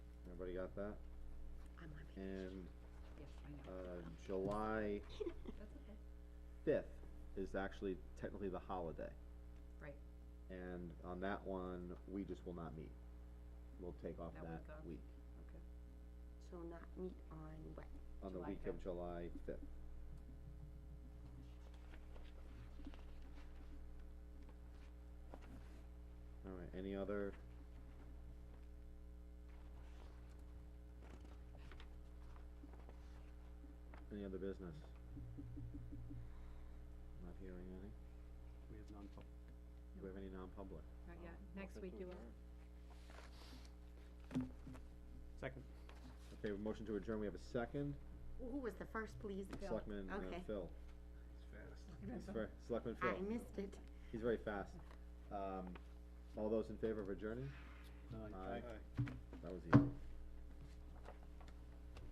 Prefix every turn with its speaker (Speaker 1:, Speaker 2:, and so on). Speaker 1: everybody got that?
Speaker 2: I'm on vacation.
Speaker 1: And,
Speaker 2: Yes, I know.
Speaker 1: uh, July
Speaker 2: That's okay.
Speaker 1: fifth is actually technically the holiday.
Speaker 2: Right.
Speaker 1: And on that one, we just will not meet. We'll take off
Speaker 2: That
Speaker 1: that
Speaker 2: week off.
Speaker 1: week,
Speaker 2: So not meet on what?
Speaker 1: on the
Speaker 2: July
Speaker 1: week of July fifth. All right, any other? Any other business? Not hearing any.
Speaker 3: We have non-public.
Speaker 1: Do we have any non-public?
Speaker 2: Not yet,
Speaker 3: Um,
Speaker 2: next week
Speaker 3: motion to
Speaker 2: you will.
Speaker 3: adjourn. Second.
Speaker 1: Okay, motion to adjourn, we have a second.
Speaker 2: Who was the first, please? Bill?
Speaker 1: Selectman uh,
Speaker 2: Okay.
Speaker 1: Phil. He's fast. Selectman
Speaker 2: I
Speaker 1: Phil,
Speaker 2: missed it.
Speaker 1: he's very fast. Um, all those in favor of adjourning?
Speaker 3: No, I-
Speaker 1: Aye. That was easy.